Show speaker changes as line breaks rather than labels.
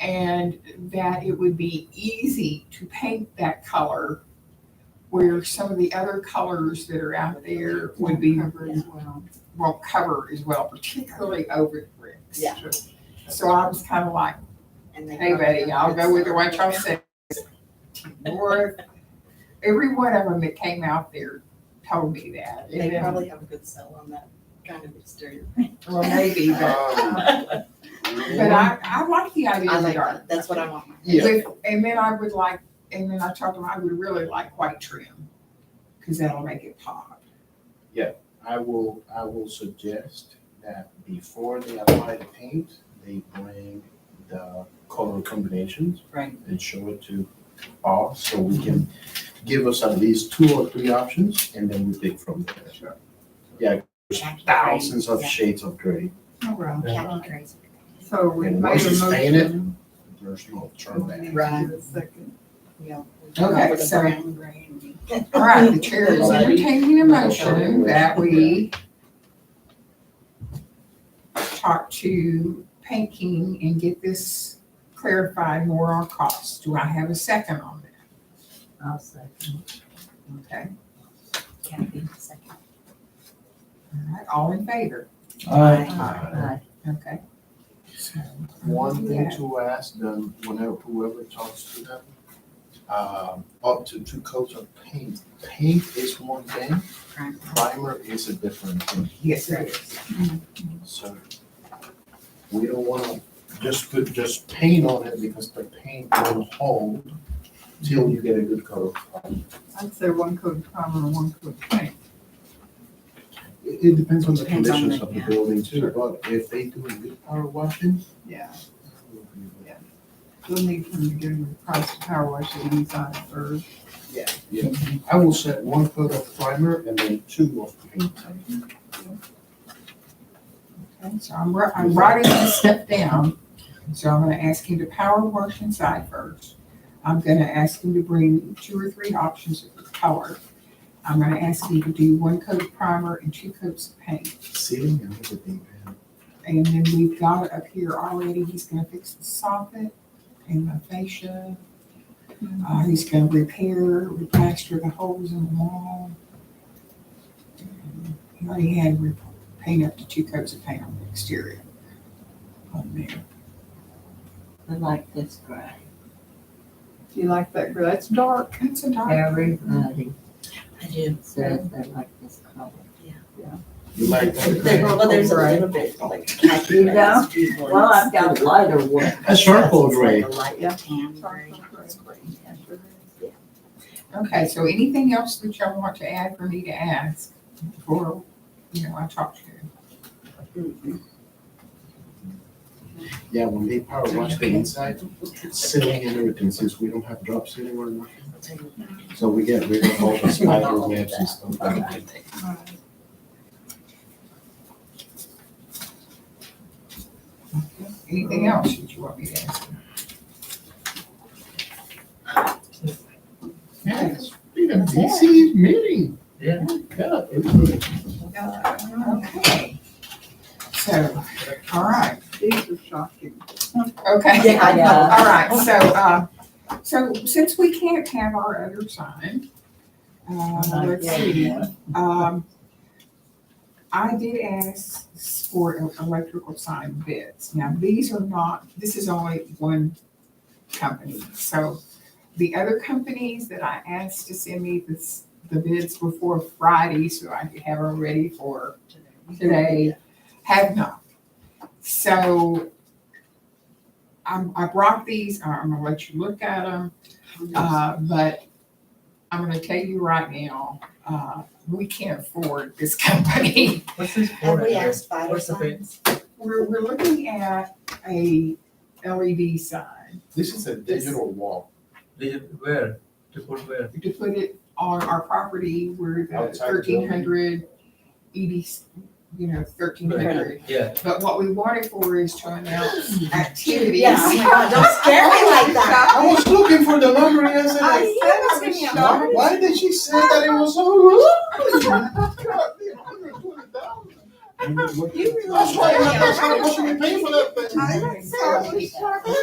and that it would be easy to paint that color where some of the other colors that are out there would be,
Cover as well.
won't cover as well, particularly over the bricks.
Yeah.
So I was kind of like,
And they
hey buddy, I'll go with the what y'all said. Or every one of them that came out there told me that. And
They
then-
probably have a good sell on that kind of exterior paint.
Well, maybe, but,
Um,
but I, I like the idea
I
of the
like
dark.
that, that's what I want.
Yeah.
With- And then I would like, and then I told them I would really like white trim, because that'll make it pop.
I will, I will suggest that before they apply the paint, they bring the color combinations.
Right.
And show it to all, so we can give us at least two or three options, and then we take from there.
Sure.
Yeah,
Khaki gray,
thousands of
Yeah.
shades of gray,
All right.
khaki grays.
So we
and
made
once you
a
stain it,
motion.
there's no turn back.
Right.
Second.
Yeah.
Okay,
With a
so-
brown gray and-
All right, the chair is entertaining a motion that we talk to Paint King and get this clarified more on costs. Do I have a second on
I'll second.
that? Okay,
Kathy, second.
all right, all in favor?
Aye.
Okay. So,
One
Yeah.
thing to ask them, whenever, whoever talks to them, um, up to two coats of paint. Paint is one thing,
Right.
primer is a different thing,
Yes, there is.
so. We don't wanna just put, just paint on it because the paint will hold till you get a good coat. of primer.
I'd say one coat primer and one coat paint.
It, it depends on the
Depends on
conditions
the-
of the
yeah.
building too, but if they do a good power washing.
Yeah,
we'll be-
we'll need them to give them the price of power wash that he's on first.
Yeah, I will set one coat of primer and then two of paint.
Okay, so I'm, wri- I'm writing this step down, so I'm gonna ask him to power wash inside first. I'm gonna ask him to bring two or three options of color. I'm gonna ask him to do one coat of primer and two coats of paint.
Ceiling and everything, man.
And then we've got it up here already, he's gonna fix the soffit and the fascia. Uh, he's gonna repair, replaster the holes in the wall. He already had re- paint up to two coats of paint on the exterior. On there.
I like this gray.
Do you like that, that's dark. It's a dark.
Everybody
I do.
says they like this color.
You like
There-
that?
Well, there's a
Right.
little bit like khaki.
You
that's usually-
Well, I've got lighter one.
A charcoal
It's
gray.
like a light
Yeah.
tan gray.
Charcoal gray.
It's great.
Okay, so anything else that y'all want to add for me to ask before, you know, I talk to you?
Yeah, when they power wash the inside, ceiling and everything, since we don't have drop ceiling or nothing.
I'll tell you what.
So we get rid of all the spider webs and stuff. like that.
Anything else that you want me to ask?
Yeah, it's been a busy meeting. Yeah. Yeah, everything.
Okay. So, all right.
These are shocking.
Okay.
Yeah, I know.
All right, so, uh, so since we can't have our other sign,
Oh
uh, let's see. Um, I did ask for e- electrical sign bids. Now, these are not, this is only one company. So the other companies that I asked to send me this, the bids before Friday, so I could have them ready for today, have not. So I'm, I brought these, I'm gonna let you look at them. Uh, but I'm gonna tell you right now, uh, we can't afford this company.
What's this
Have
for?
we asked spider
What's the big-
signs?
We're, we're looking at a LED sign
This is a digital wall
They just where? To put where?
to put it on our property where the
Outside the building.
thirteen hundred ED, you know, thirteen hundred.
Yeah.
But what we want it for is to announce activities.
Yeah, oh my God, don't scare me like that.
I was looking for the number yesterday.
I said I was
Why,
shocked.
why did she say that it was so low?
You really-
That's why, that's why I wasn't paying for that thing.
I was so shocked.